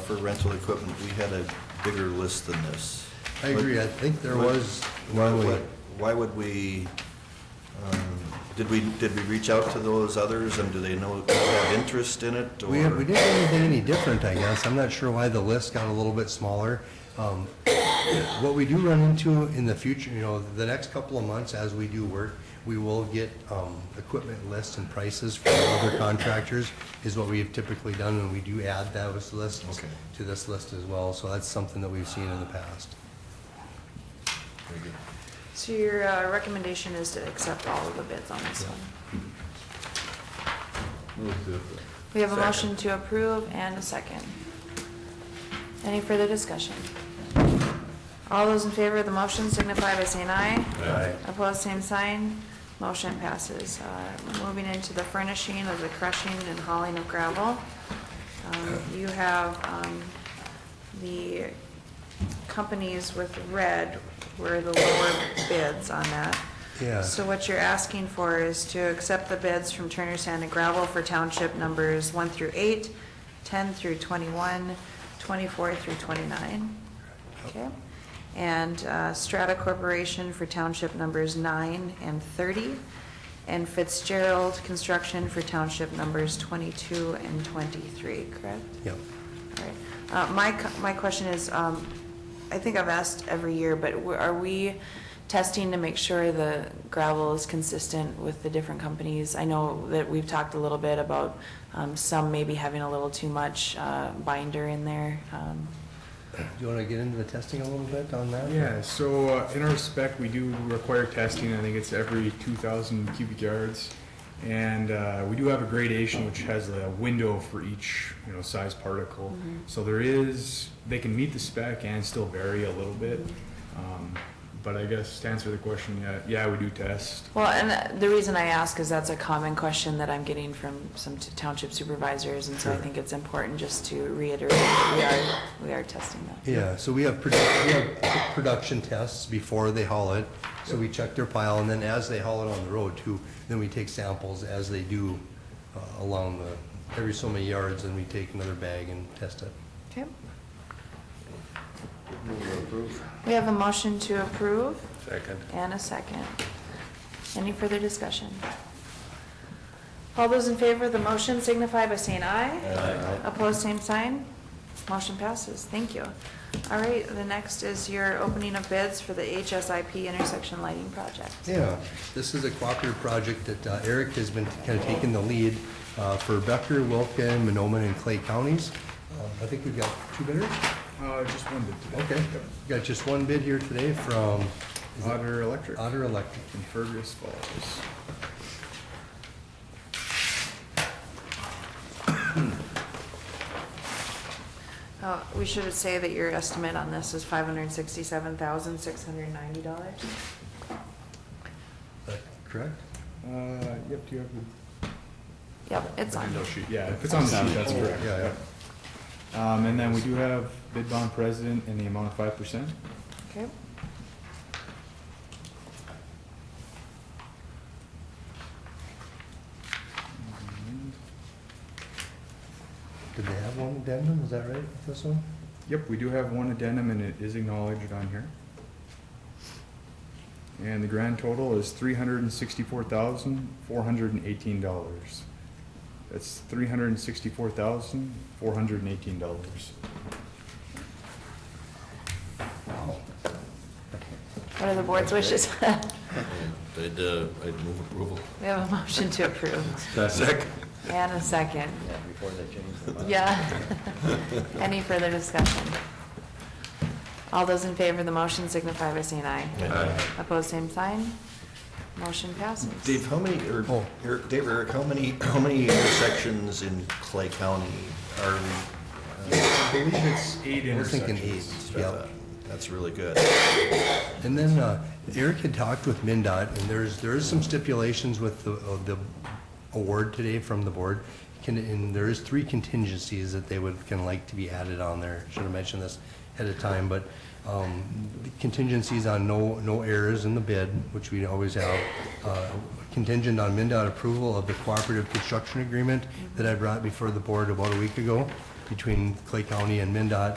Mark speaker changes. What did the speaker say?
Speaker 1: for rental equipment, we had a bigger list than this.
Speaker 2: I agree, I think there
Speaker 1: What-
Speaker 2: was,
Speaker 1: Why would, why would we, um, did we, did we reach out to those others, and do they know, have interest in it, or?
Speaker 2: we, we didn't do anything any different, I guess, I'm not sure why the list got a little bit smaller. Um, What we do run into in the future, you know, the next couple of months as we do work, we will get, um, equipment lists and prices from other contractors, is what we have typically done, and we do add those lists
Speaker 1: Okay.
Speaker 2: to this list as well, so that's something that we've seen in the past.
Speaker 1: Very good.
Speaker 3: So your uh, recommendation is to accept all of the bids on this one? We have a motion to approve and a second. Any further discussion? All those in favor of the motion signify by saying aye.
Speaker 2: Aye.
Speaker 3: Opposed, same sign. Motion passes. Uh, Moving into the furnishing of the crushing and hauling of gravel. Um, You have um, the companies with red were the lower bids on that.
Speaker 2: Yeah.
Speaker 3: So what you're asking for is to accept the bids from Turner Sand and Gravel for township numbers one through eight, 10 through 21, 24 through 29. Okay? And uh, Strata Corporation for township numbers nine and 30, and Fitzgerald Construction for township numbers 22 and 23, correct?
Speaker 2: Yep.
Speaker 3: All right. Uh, My, co- my question is, um, I think I've asked every year, but w- are we testing to make sure the gravel is consistent with the different companies? I know that we've talked a little bit about um, some maybe having a little too much uh, binder in there. um,
Speaker 2: Do you wanna get into the testing a little bit on that?
Speaker 4: Yeah, so uh, in our spec, we do require testing, I think it's every two thousand cubic yards. And uh, we do have a gradation which has a window for each, you know, size particle. So there is, they can meet the spec and still vary a little bit. Um, But I guess to answer the question, yeah, yeah, we do test.
Speaker 3: Well, and uh, the reason I ask is that's a common question that I'm getting from some t- township supervisors, and so I think it's important just to reiterate that we are, we are testing that.
Speaker 2: Yeah, so we have, produ- we have production tests before they haul it, so we check their pile, and then as they haul it on the road too, then we take samples as they do uh, along the, every so many yards, and we take another bag and test it.
Speaker 3: Okay. We have a motion to approve
Speaker 5: Second.
Speaker 3: and a second. Any further discussion? All those in favor of the motion signify by saying aye.
Speaker 1: Aye.
Speaker 3: Opposed, same sign. Motion passes. Thank you. All right, the next is your opening of bids for the HSIP intersection lighting project.
Speaker 2: Yeah, this is a cooperative project that uh, Eric has been kind of taking the lead uh, for Becker, Wilken, Monoman, and Clay counties. Uh, I think we've got two bidders?
Speaker 4: Uh, just one bit today.
Speaker 2: Okay, got just one bid here today from is it
Speaker 4: Otter Electric
Speaker 2: Otter Electric.
Speaker 4: in Fergus Falls.
Speaker 3: Uh, We should say that your estimate on this is $567,690.
Speaker 2: Is that correct?
Speaker 4: Uh, yep, do you have the?
Speaker 3: Yep, it's on.
Speaker 4: No sheet. Yeah, if it's on the sheet, that's correct.
Speaker 2: Yeah, yeah.
Speaker 4: Um, and then we do have bid bond president in the amount of five percent.
Speaker 3: Okay.
Speaker 2: Did they have one addendum, is that right, with this one?
Speaker 4: Yep, we do have one addendum and it is acknowledged on here. And the grand total is three hundred and sixty-four thousand, four hundred and eighteen dollars. That's three hundred and sixty-four thousand, four hundred and eighteen dollars.
Speaker 3: What are the board's wishes?
Speaker 5: I'd, uh, I'd move approval.
Speaker 3: We have a motion to approve
Speaker 5: Second.
Speaker 3: and a second.
Speaker 6: Yeah, before they change the law.
Speaker 3: Yeah. Any further discussion? All those in favor of the motion signify by saying aye.
Speaker 1: Uh,
Speaker 5: Aye.
Speaker 3: Opposed, same sign. Motion passes.
Speaker 1: Dave, how many, or,
Speaker 2: Oh.
Speaker 1: Eric, Dave, or Eric, how many, how many intersections in Clay County are we? uh,
Speaker 4: I believe it's eight
Speaker 2: We're thinking
Speaker 4: intersections.
Speaker 2: eight,
Speaker 1: Strata?
Speaker 2: yep.
Speaker 1: That's really good.
Speaker 2: And then uh, Eric had talked with MinDOT, and there's, there is some stipulations with the, of the award today from the board. Can- And there is three contingencies that they would, can like to be added on there. Should have mentioned this ahead of time, but um, contingencies on no, no errors in the bid, which we always have. uh, Contingent on MinDOT approval of the cooperative construction agreement that I brought before the board about a week ago. between Clay County and MinDOT